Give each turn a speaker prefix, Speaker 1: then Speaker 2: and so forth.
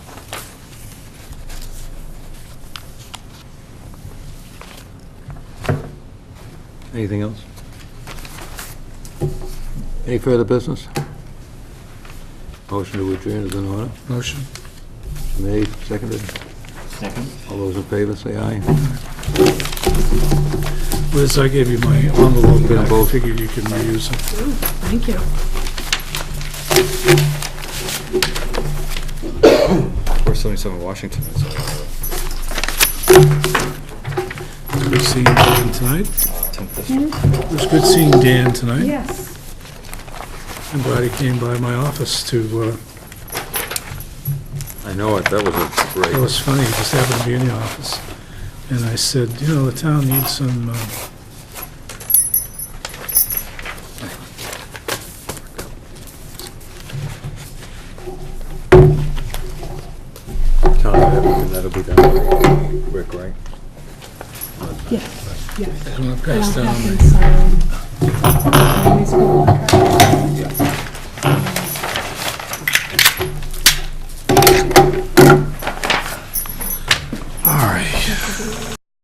Speaker 1: Anything else? Any further business? Motion to adjourn is in order.
Speaker 2: Motion?
Speaker 1: Made, seconded.
Speaker 3: Second.
Speaker 1: All those in favor, say aye.
Speaker 2: Liz, I gave you my envelope, and I
Speaker 1: Envelope.
Speaker 2: figured you can reuse it.
Speaker 4: Thank you.
Speaker 5: We're 77 Washington. so, uh,
Speaker 2: It was Good seeing Dan tonight.
Speaker 5: 10th this-
Speaker 2: It was good seeing Dan tonight.
Speaker 4: Yes.
Speaker 2: I'm glad he came by my office to, uh,
Speaker 5: I know it, that was a
Speaker 2: It
Speaker 5: great,
Speaker 2: was funny, he just happened to be in the office, and I said, you know, the town needs some, uh,
Speaker 5: town of Abington, that'll be done. Rick, right?
Speaker 4: Yes, yes.
Speaker 2: I'm gonna
Speaker 4: And
Speaker 2: pass
Speaker 4: I'll
Speaker 2: down
Speaker 4: have
Speaker 2: my-
Speaker 4: them sign. um, these little cards.
Speaker 2: All right.